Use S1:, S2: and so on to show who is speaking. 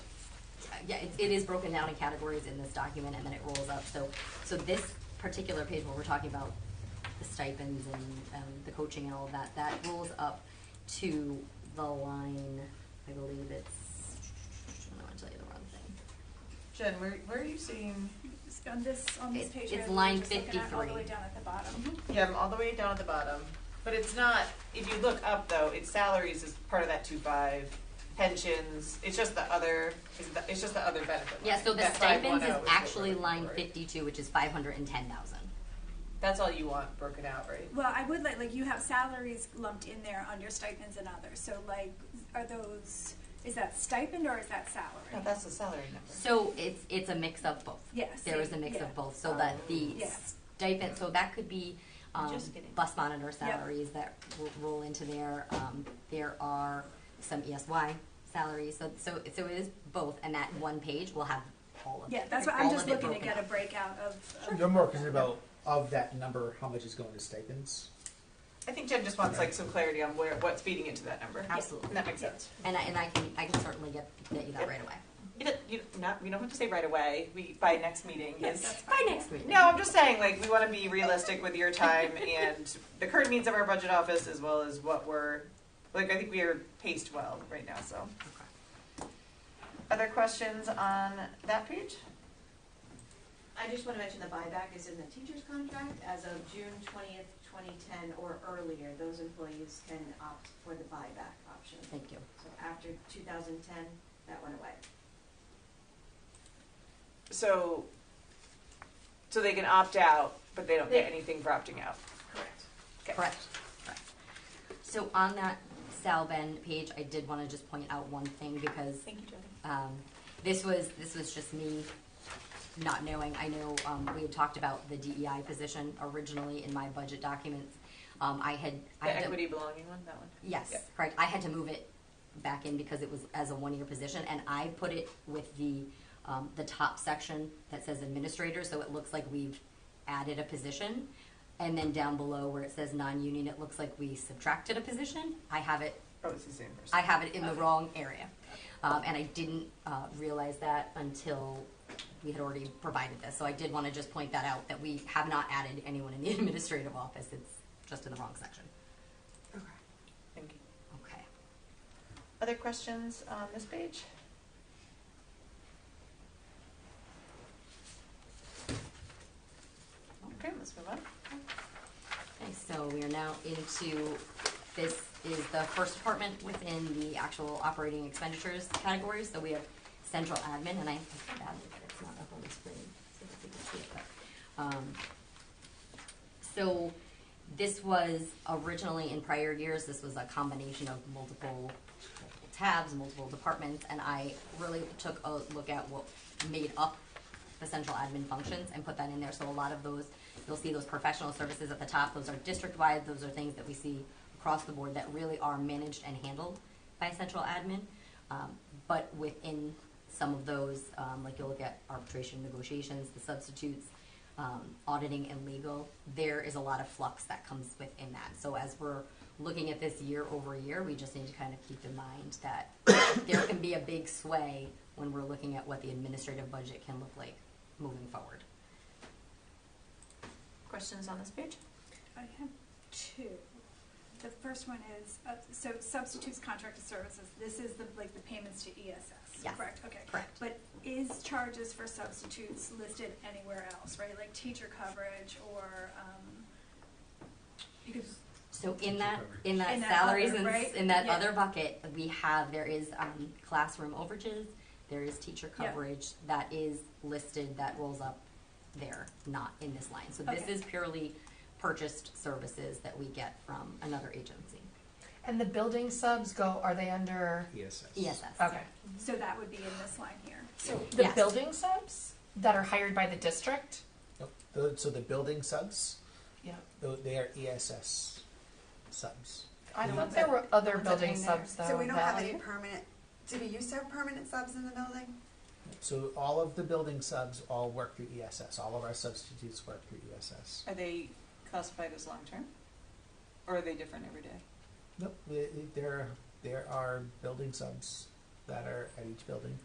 S1: yeah, it, it is broken down in categories in this document and then it rolls up, so, so this particular page where we're talking about the stipends and, um, the coaching and all of that, that rolls up to the line, I believe it's, I don't wanna tell you the wrong thing.
S2: Jen, where, where are you seeing,
S3: It's On this, on this
S1: It-
S3: page.
S1: it's
S3: right, we're
S1: line
S3: just looking at All the
S1: 53.
S3: way down at the bottom.
S2: yeah, I'm all the way down at the bottom, but it's not, if you look up though, it's salaries is part of that two five, pensions, it's just the other, it's the- it's just the other benefit line.
S1: Yeah, so the
S2: That 510
S1: stipends is
S2: what we're
S1: actually
S2: looking
S1: line
S2: for.
S1: fifty-two, which is five hundred and ten thousand.
S2: That's all you want broken out, right?
S3: Well, I would like, like you have salaries lumped in there under stipends and others, so like, are those, is that stipend or is that
S2: No,
S3: salary?
S2: that's the salary number.
S1: So it's, it's a mix of both.
S3: Yes.
S1: There is a mix
S3: Yeah.
S1: of both, so that the
S3: Yeah.
S1: stipend, so that could be, um,
S2: Just kidding.
S1: bus monitor salaries that will roll into there. Um, there are some ESY salaries, so, so, so it is both, and that one page will have all of it.
S3: Yeah, that's what I'm
S1: all
S3: just
S1: of it
S3: looking to
S1: broken
S3: get a
S1: up.
S3: breakout of.
S4: You're more concerned about of that number, how much is going to stipends?
S2: I think Jen just wants like some clarity on where, what's feeding into that number.
S1: Absolutely.
S2: That makes sense.
S1: And I, and I can, I can certainly get, get you that
S2: Yep.
S1: right away.
S2: You don't, you don't- not, we don't have to say right away, we, by next meeting is.
S1: By next week.
S2: No, I'm just saying, like, we want to be realistic with your time and the current needs of our budget office as well as what we're, like, I think we are paced well right now, so.
S1: Okay.
S2: Other questions on that page?
S5: I just want to mention the buyback is in the teacher's contract as of June twentieth, twenty ten or earlier. Those employees can opt for the buyback option.
S1: Thank you.
S5: So after two thousand ten, that went away.
S2: So, so they can opt out, but they don't get
S5: They-
S2: anything for opting out.
S5: Correct.
S2: Okay.
S1: Correct, correct. So on that Sal Ben page, I did wanna just point out one thing because,
S2: Thank you, Jen.
S1: um, this was, this was just me not knowing. I know, um, we had talked about the DEI position originally in my budget documents. Um, I had. I
S2: The
S1: had to-
S2: equity belonging one, that one?
S1: Yes,
S2: Yeah.
S1: correct. I had to move it back in because it was as a one-year position, and I put it with the, um, the top section that says administrator, so it looks like we've added a position. And then down below where it says non-union, it looks like we subtracted a position. I have it,
S2: Oh, it's the same person.
S1: I have it in the wrong area. Um, and I didn't, uh, realize that until we had already provided this, so I did wanna just point that out, that we have not added anyone in the administrative office, it's just in the wrong section.
S2: Okay. Thank you.
S1: Okay.
S2: Other questions on this page? Okay, let's move on.
S1: Okay, so we are now into, this is the first department within the actual operating expenditures category. So we have central admin, and I, I feel badly that it's not up on the screen, so that we can see it, but, um, so this was originally in prior years, this was a combination of multiple multiple tabs, multiple departments, and I really took a look at what made up the central admin functions and put that in there. So a lot of those, you'll see those professional services at the top, those are district-wide, those are things that we see across the board that really are managed and handled by central admin. Um, but within some of those, um, like you'll look at arbitration negotiations, the substitutes, um, auditing and legal, there is a lot of flux that comes within that. So as we're looking at this year over year, we just need to kind of keep in mind that there can be a big sway when we're looking at what the administrative budget can look like moving forward.
S2: Questions on this page?
S3: I have two. The first one is, uh, so substitutes contracted services, this is the, like, the payments to ESS,
S1: Yes.
S3: correct? Okay.
S1: Correct.
S3: But is charges for substitutes listed anywhere else, right? Like teacher coverage or, um, because,
S1: So in that, in that
S3: In that
S1: salaries
S3: other,
S1: and, s-
S3: right?
S1: in that
S3: Yeah.
S1: other bucket, we have, there is, um, classroom overages, there is teacher
S3: Yeah.
S1: coverage, that is listed, that rolls up there, not in this line. So this
S3: Okay.
S1: is purely purchased services that we get from another agency,
S6: And the building subs go, are they under,
S4: ESS.
S1: ESS.
S6: okay.
S3: so that would be in this line here.
S6: So the
S1: Yes.
S6: building subs that are hired by the district?
S4: The- So the building subs,
S6: Yeah.
S4: tho- they are ESS subs.
S6: I
S4: Yeah.
S6: thought there were other
S7: Ones that
S6: building
S7: hang there.
S6: subs though.
S7: So we don't have
S6: that-
S7: any permanent, did we used to have permanent subs in the building?
S4: So all of the building subs all work through ESS. All of our substitutes work through E ESS.
S2: Are they classified as long-term? Or are they different every day?
S4: Nope, we- there, there are building subs that are at each building.